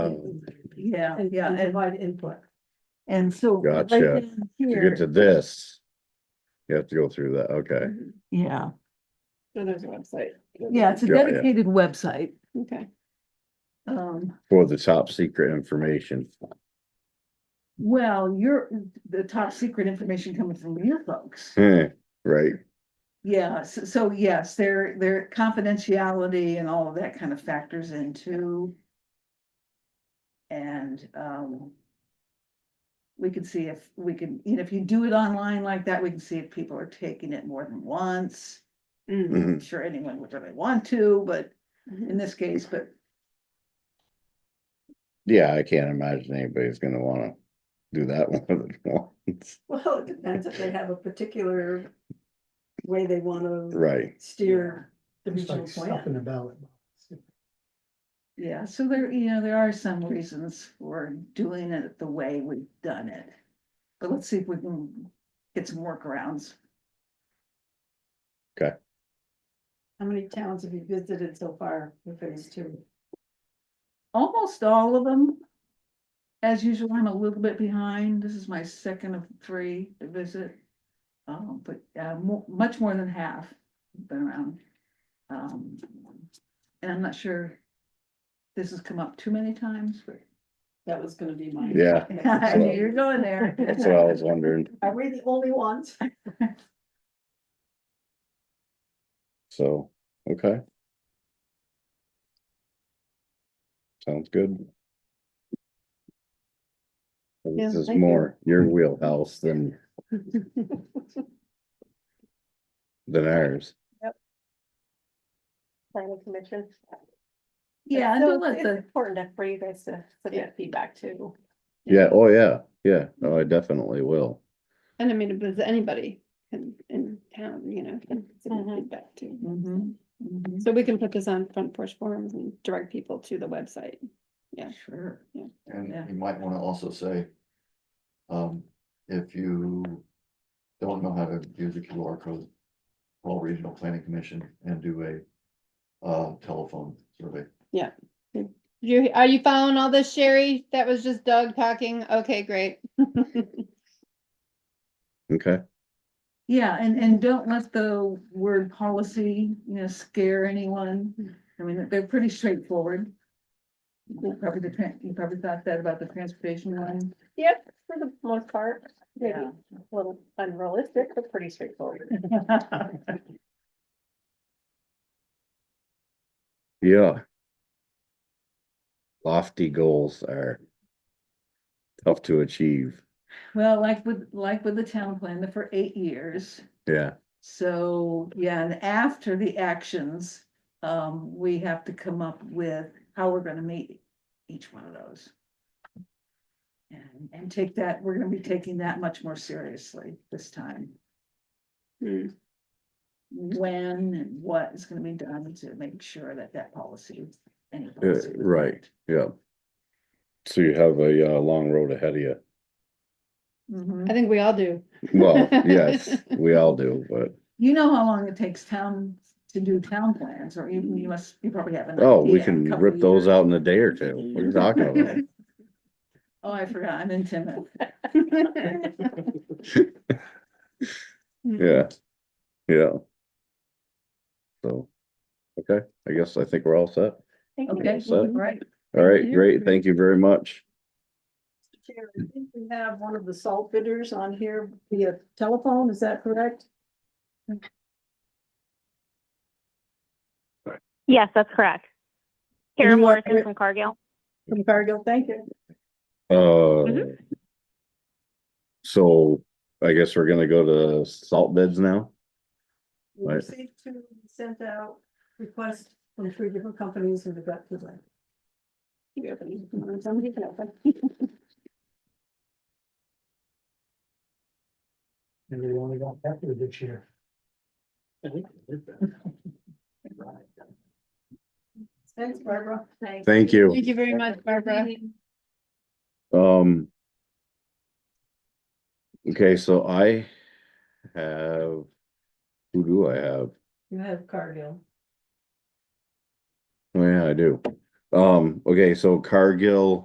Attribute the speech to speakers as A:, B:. A: Um,
B: yeah,
C: and,
B: yeah,
C: and
B: and,
C: provide input.
B: and so. right
A: Gotcha.
B: down
A: To get
B: Here,
A: to this. You have to go through that, okay.
B: yeah,
D: So Oh, there's a website.
B: yeah, it's a
A: Yeah, yeah.
B: dedicated website,
D: Okay.
B: um.
A: For the top secret information.
B: Well, you're, the top secret information coming from your folks.
A: Eh, Right,
B: Yeah, so, so yes, their, their confidentiality and all of that kind of factors into. And, um. We can see if we can, you know, if you do it online like that, we can see if people are taking it more than once.
D: Mm.
A: mhm,
B: I'm sure anyone would really want to, but in this case, but
A: yeah, I can't imagine anybody's gonna wanna do that one of the ones,
C: Well, it depends if they have a particular way they want to
A: right,
C: steer the
E: It's
C: regional
E: like stuff in
C: plan.
E: a ballot. box.
B: yeah, so there, you know, there are some reasons for doing it the way we've done it. But let's see if we can get some workarounds.
C: How many towns have you visited so far in phase two?
B: almost all of them. As usual, I'm a little bit behind. This is my second of three to visit. Um, but uh, mo- much more than half have been around. Um, and I'm not sure. This has come up too many times, but
C: That was gonna be mine.
A: yeah,
B: I knew you're going there.
A: that's what I was wondering,
C: Are we the only ones?
A: so, okay. Sounds good. This
C: Yeah,
A: is
C: thank you.
A: more your wheelhouse than, than ours.
F: planning commission.
B: Yeah, and
F: So
B: don't let
F: it's
B: the,
F: Important to- for you guys to submit feedback too.
A: Yeah, oh, yeah, yeah, no, I definitely will.
D: And I mean, if there's anybody in, in town, you know, can submit
B: Mm-hmm.
F: Mhm.
D: feedback too.
B: Mhm, mhm,
D: So we can put this on front porch forums and direct people to the website. Yeah.
B: sure. Yeah.
G: And you might wanna also say. Um, if you don't know how to use a QR code. Call Regional Planning Commission and do a uh telephone survey.
D: You, are you following all this, Sherry? That was just Doug talking. Okay, great.
A: Okay,
B: Yeah, and, and don't let the word policy, you know, scare anyone. I mean, they're pretty straightforward. You Probably the, tran- you probably thought that about the transportation one.
F: Yep, for the most part, maybe
B: Yeah.
F: a little unrealistic, but pretty straightforward.
A: yeah. Lofty goals are tough to achieve,
B: Well, like with, like with the town plan, they're for eight years.
A: yeah,
B: So, yeah, and after the actions, um, we have to come up with how we're gonna meet each one of those. And, and take that, we're gonna be taking that much more seriously this time.
D: Hmm.
B: When and what is gonna be done to make sure that that policy. any
A: Yeah,
B: policy is
A: Uh, right.
B: met.
A: yeah. So you have a, uh, long road ahead of you.
B: Mhm.
C: Mm-hmm.
D: I think we all do.
A: Well, yes, we all do, but,
B: You know how long it takes town to do town plans, or you, you must, you probably have an.
A: oh, we
B: idea, a
A: can
B: couple
A: rip those
B: years.
A: out in a day or two. What are you talking about?
B: Oh, I forgot, I'm in Timoth. Mm-hmm.
A: Yeah, yeah. So, okay, I guess I think we're all set.
F: Thank you.
B: Okay,
A: So-
B: all right.
A: All right,
D: you.
A: great, thank you very much.
C: Chair, I think we have one of the salt bidders on here via telephone, is that correct?
H: Yes, that's correct. Karen
C: you are-
H: Morrison from Cargill.
C: From Cargill, thank you.
D: Mm-hmm.
A: Uh. So I guess we're gonna go to salt beds now?
C: We
A: Right.
C: received two, we sent out requests from three different companies and we got two back.
D: Keep it open. Somebody can open.
E: And we only got Pepper this year.
C: Thanks, Barbara.
F: Thanks.
A: Thank you.
D: Thank you very much, Barbara.
A: Um. Okay, so I have, who do I have?
C: You have Cargill.
A: Oh yeah, I do. Um, okay, so Cargill